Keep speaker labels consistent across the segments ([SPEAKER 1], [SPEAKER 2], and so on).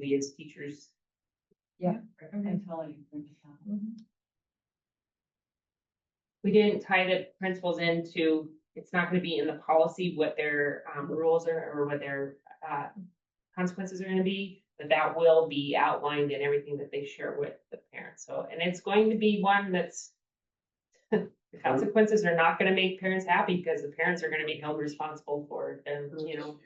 [SPEAKER 1] we as teachers.
[SPEAKER 2] Yeah.
[SPEAKER 1] I'm telling you. We didn't tie the principals into, it's not gonna be in the policy what their um rules are or what their uh. Consequences are gonna be, but that will be outlined in everything that they share with the parents, so, and it's going to be one that's. The consequences are not gonna make parents happy because the parents are gonna be held responsible for them, you know.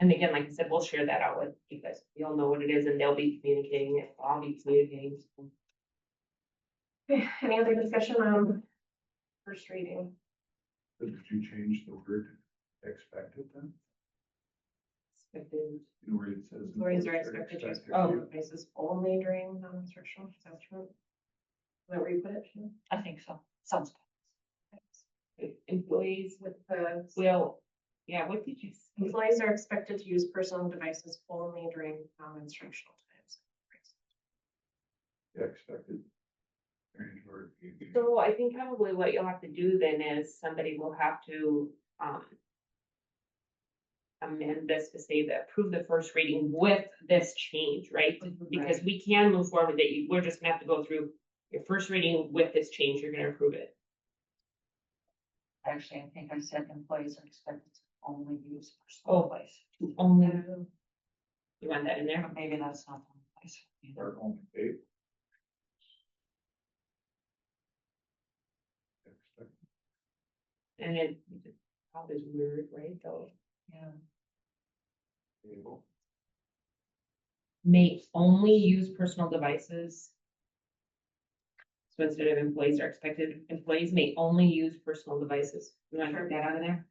[SPEAKER 1] And again, like I said, we'll share that out with you guys. You'll know what it is and they'll be communicating it. I'll be communicating.
[SPEAKER 3] Okay, Any other discussion on first reading?
[SPEAKER 4] So Did you change the word expected then?
[SPEAKER 3] Expected
[SPEAKER 4] You know, Where it says.
[SPEAKER 3] Employees are expected to use
[SPEAKER 2] Oh.
[SPEAKER 3] personal devices only during non-instructional establishment. Is that where you put it? Shannon?
[SPEAKER 2] I think so, sounds.
[SPEAKER 1] Employees
[SPEAKER 3] With the,
[SPEAKER 1] will, yeah, what did you say?
[SPEAKER 3] employees are expected to use personal devices only during non-instructional times.
[SPEAKER 4] Yeah, Expected. Change word.
[SPEAKER 1] So I think probably what you'll have to do then is somebody will have to, um. Amend this to say that approve the first reading with this change, right? Because we can move forward with it. You- We're just gonna have to go through your first reading with this change. You're gonna approve it.
[SPEAKER 2] Actually, I think I said employees are expected to only use
[SPEAKER 1] Oh.
[SPEAKER 2] personal device.
[SPEAKER 1] Only,
[SPEAKER 3] Um,
[SPEAKER 1] you want that in there?
[SPEAKER 2] But maybe that's not the place.
[SPEAKER 4] Or only eight. Expected.
[SPEAKER 1] And it, all is weird, right, though,
[SPEAKER 2] Yeah.
[SPEAKER 4] Table.
[SPEAKER 1] may only use personal devices. So instead of employees are expected, employees may only use personal devices, you wanna
[SPEAKER 3] Sure.
[SPEAKER 1] take that out of there?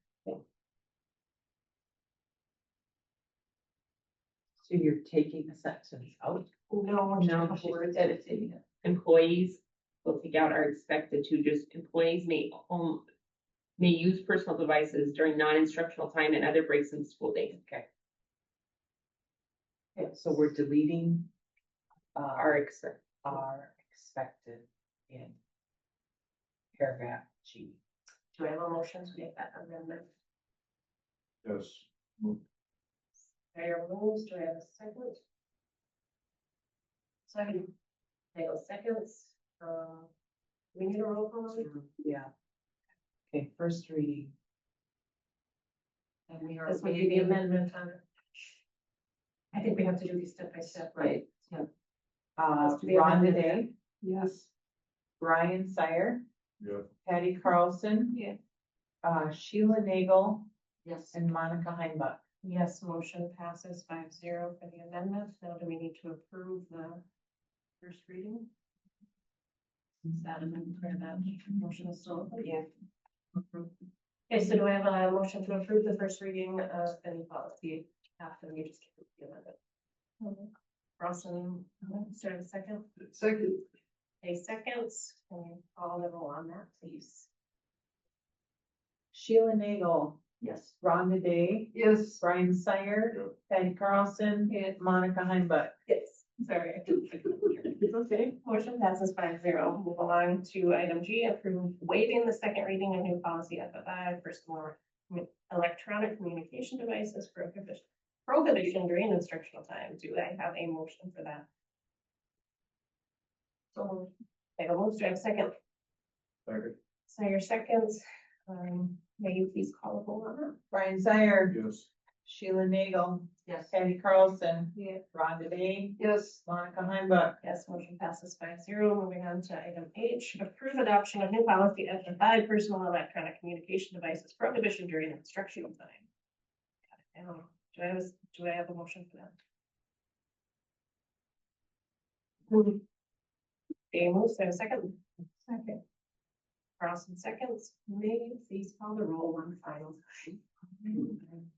[SPEAKER 5] So you're taking the sections out?
[SPEAKER 3] No,
[SPEAKER 1] No,
[SPEAKER 3] just
[SPEAKER 1] she's
[SPEAKER 3] words.
[SPEAKER 5] editing it.
[SPEAKER 1] Employees, we'll take out are expected to, just employees may own. May use personal devices during non-instructional time and other breaks in school day,
[SPEAKER 5] Yeah, so we're deleting. Uh,
[SPEAKER 1] are
[SPEAKER 5] are,
[SPEAKER 1] expected,
[SPEAKER 5] are expected in. Paragraph G.
[SPEAKER 3] Do I have a motion to make that amendment?
[SPEAKER 4] Yes.
[SPEAKER 3] Mayor rules, do I have a second? Second. Nagle seconds, uh, we need a roll call. on it?
[SPEAKER 5] Yeah. Okay, first reading. And we are.
[SPEAKER 3] This would be the amendment on it. I think we have to do these step by step, right?
[SPEAKER 5] Right, yeah. Uh,
[SPEAKER 3] Let's do the
[SPEAKER 5] Ron
[SPEAKER 3] amendment.
[SPEAKER 5] Day. Yes. Brian Sire,
[SPEAKER 4] Yeah.
[SPEAKER 5] Patty Carlson.
[SPEAKER 3] Yeah.
[SPEAKER 5] Uh, Sheila Nagel
[SPEAKER 2] Yes.
[SPEAKER 5] and Monica Heimbach.
[SPEAKER 3] Yes, motion passes five zero for the amendment. Now do we need to approve the first reading? Is that amendment for that motion is still? open?
[SPEAKER 1] yeah,
[SPEAKER 3] Okay, so do I have a motion to approve the first reading of any policy after we just give the amendment? Roslin, is there a second?
[SPEAKER 4] Second.
[SPEAKER 3] A seconds, can you call the roll on that, please?
[SPEAKER 5] Sheila Nagel,
[SPEAKER 2] Yes.
[SPEAKER 5] Rhonda Day. Yes. Brian Sire, Patty Carlson,
[SPEAKER 3] Yes.
[SPEAKER 5] Monica Heimbach.
[SPEAKER 3] Yes. Sorry. I couldn't figure it out.
[SPEAKER 5] It's okay.
[SPEAKER 3] Motion passes five zero. Move along to item G, approve waiving the second reading of new policy FFI, personal electronic communication devices prohibition, prohibition during instructional time. Do I have a motion for that? So, I have a motion, do I have a second?
[SPEAKER 4] Second.
[SPEAKER 3] So your seconds, um, may you please call the roll on that?
[SPEAKER 5] Brian Sire,
[SPEAKER 4] Yes.
[SPEAKER 5] Sheila Nagel,
[SPEAKER 2] Yes.
[SPEAKER 5] Patty Carlson,
[SPEAKER 3] Yeah.
[SPEAKER 5] Rhonda Day. Yes. Monica Heimbach.
[SPEAKER 3] Yes, motion passes five zero. Moving on to item H, approve adoption of new policy F and I, personal electronic communication devices prohibition during instructional time. Um, do I have, a s- do I have a motion for that? Dave moves, there a second? Second. Carlson seconds, may you please call the roll one final time?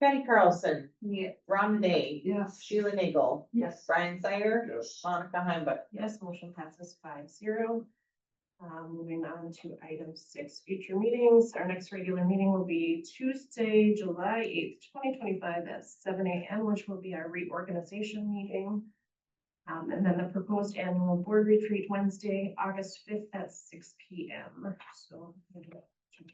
[SPEAKER 5] Patty Carlson,
[SPEAKER 3] Yeah.
[SPEAKER 5] Rhonda Day.
[SPEAKER 2] Yes.
[SPEAKER 5] Sheila Nagel,
[SPEAKER 3] Yes.
[SPEAKER 5] Brian Sire,
[SPEAKER 4] Yes.
[SPEAKER 5] Monica Heimbach.
[SPEAKER 3] Yes, motion passes five zero. Um, moving on to item six, future meetings. Our next regular meeting will be Tuesday, July eighth, twenty twenty-five at seven AM, which will be our reorganization meeting. Um, and then the proposed annual board retreat Wednesday, August fifth at six PM. So. we'll do that.